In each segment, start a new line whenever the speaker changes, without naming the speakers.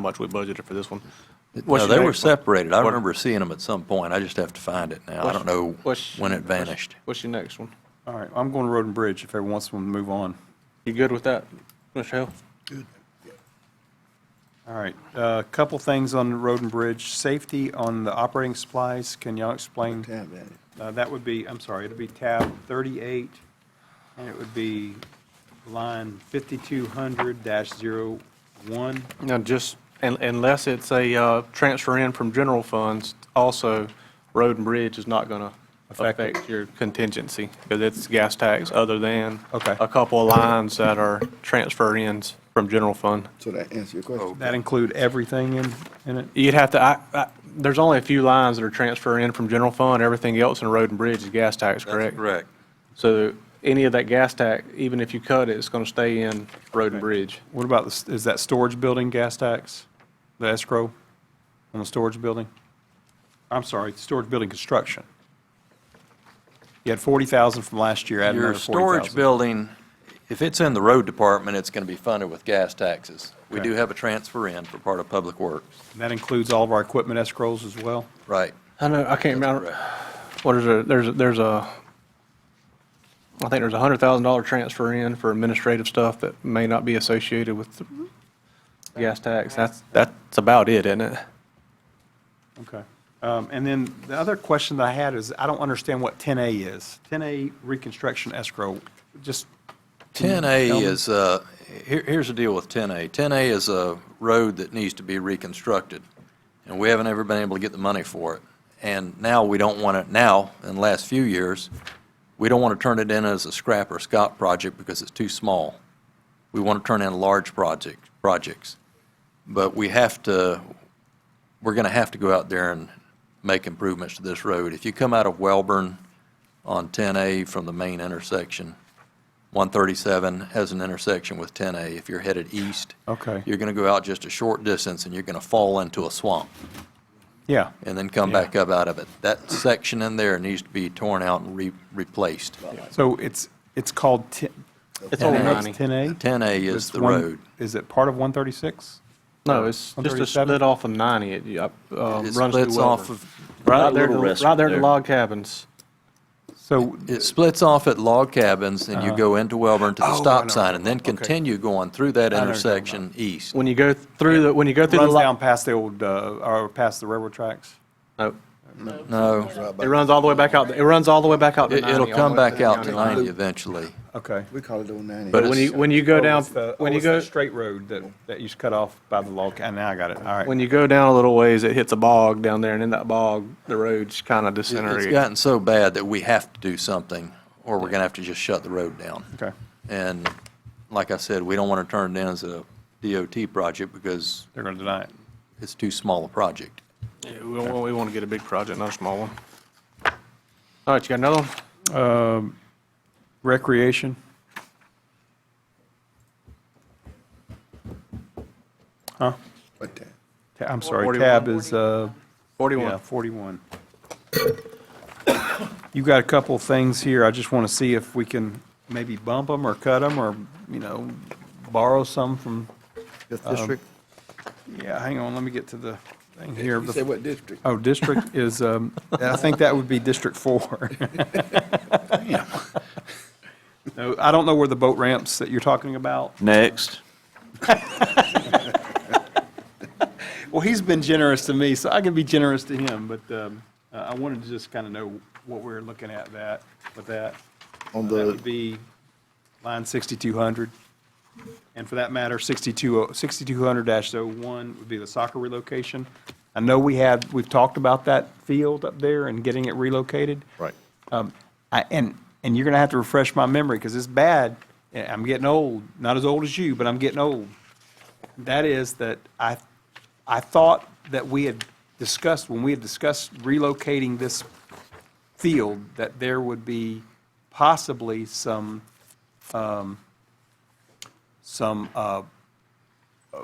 how much we budgeted for this one. What's your
No, they were
next-
separated. I
what-
remember seeing them at some point. I just have to find it now. I don't know
What's-
when it vanished.
What's your next one?
All right, I'm going Road and Bridge if everyone wants to move on.
You good with that, Mr. Hill?
All right, a couple things on the Road and Bridge. Safety on the operating supplies, can y'all explain?
Tab that.
Uh, That would be, I'm sorry, it'd be tab 38, and it would be line 5200-01.
No, just, un- unless it's a uh, transfer in from general funds, also, road and bridge is not going to
Affect it.
affect your contingency, because it's gas tax other than
Okay.
a couple of lines that are transfer ins from general fund.
So that answer your question?
That include everything in, in it?
You'd have to, I, I, there's only a few lines that are transfer in from general fund, everything else in road and bridge is gas tax, correct?
Correct.
So any of that gas tax, even if you cut it, it's going to stay in road and bridge.
What about, the s- is that storage building gas tax, the escrow on the storage building? I'm sorry, storage building construction. You had 40,000 from last year, add
Your
another
storage
40,000.
building, if it's in the road department, it's going to be funded with gas taxes. We do
Okay.
have a transfer in for part of Public Works.
That includes all of our equipment escrows as well?
Right.
I know, I can't
That's
remember,
correct.
what is it, there's, a- there's a, I think there's a hundred thousand dollar transfer in for administrative stuff that may not be associated with the
Mm-hmm.
gas tax. That's, that's about it, isn't it?
Okay. Um, And then the other question that I had is, I don't understand what 10A is. 10A reconstruction escrow, just,
10A is, uh, here- here's the deal with 10A. 10A is a road that needs to be reconstructed, and we haven't ever been able to get the money for it. And now we don't want to, now, in the last few years, we don't want to turn it in as a scrap or scot project because it's too small. We want to turn in large project, projects. But we have to, we're going to have to go out there and make improvements to this road. If you come out of Welborn on 10A from the main intersection, 137 has an intersection with 10A. If you're headed east,
okay,
you're going to go out just a short distance and you're going to fall into a swamp
yeah.
and then come back up out of it. That section in there needs to be torn out and re- replaced.
So it's, it's called 10,
It's over
10A?
ninety.
It's 10A?
10A
But
is
it's
the
one-
road.
Is it part of 136?
No, it's just a
137?
split off of ninety, it, uh, runs
It
through
splits off
Welborn.
of,
Right there, at
Little
the-
rest
right there at the
there.
log cabins.
So
it splits off at Log Cabins and you go into Welborn to
Oh, I
the
know.
stop sign and then
Okay.
continue going through that
I know what you're talking
intersection east.
When you go through, the when you go
it
through the.
runs
lo-
down past the old, uh, or past the railroad tracks?
No,
No,
it runs all the way back out, it runs all the way back out to
it-
90,
it'll
all the
come
way
back out to
down
90 eventually.
Okay.
We call it oh old ninety.
But
When
it's-
you, when you go
Oh,
down,
it's the-
when
oh,
you
it's that
go,
Straight road that, that you just cut off by the log, and now I got it, all right.
when you go down a little ways, it hits a bog down there, and in that bog, the road's kind of
It- It's
disintegrated.
gotten so bad that we have to do something, or we're going to have to just shut the road down.
Okay.
And like I said, we don't want to turn it in as a DOT project because
They're going to deny it.
it's too small a project.
Yeah, We want, we want to get a big project, not a small one. All right, you got another one?
Recreation,
What that?
Ta- I'm sorry,
41.
tab is, uh, yeah,
Forty-one.
41. You've got a couple of things here, I just want to see if we can maybe bump them or cut them, or, you know, borrow some from,
Fifth district?
yeah, hang on, let me get to the thing here.
Um, You
The-
said what district?
Oh, district is, um, I think that would be District Four. No, I don't know where the boat ramps that you're talking about.
Next.
Well, he's been generous to me, so I can be generous to him, but um, uh, I wanted to just kind of know what we're looking at that, with that.
On
That would
the,
be line 6200. And for that matter, 62 6200-01 would be the soccer relocation. I know we had, we've talked about that field up there and getting it relocated.
right.
Um, I, and, and you're going to have to refresh my memory because it's bad. and I'm getting old, not as old as you, but I'm getting old. That is that I, I thought that we had discussed, when we had discussed relocating this field, that there would be possibly some, um, some, uh, uh, what's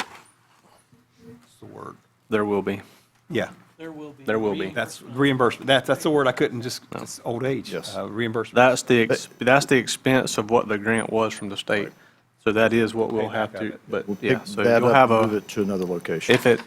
the word?
There will be.
Yeah,
There will be.
There will be.
that's reimbursement. That, that's the word I couldn't just, it's old age.
Yes.
uh, Reimbursement.
That's the, ex- that's the expense of what the grant was from the state. So that is what we'll have
got
to,
it.
but
We'll
yeah,
pick
so
that
you'll
up
have
and move
a,
it to another location.
if it,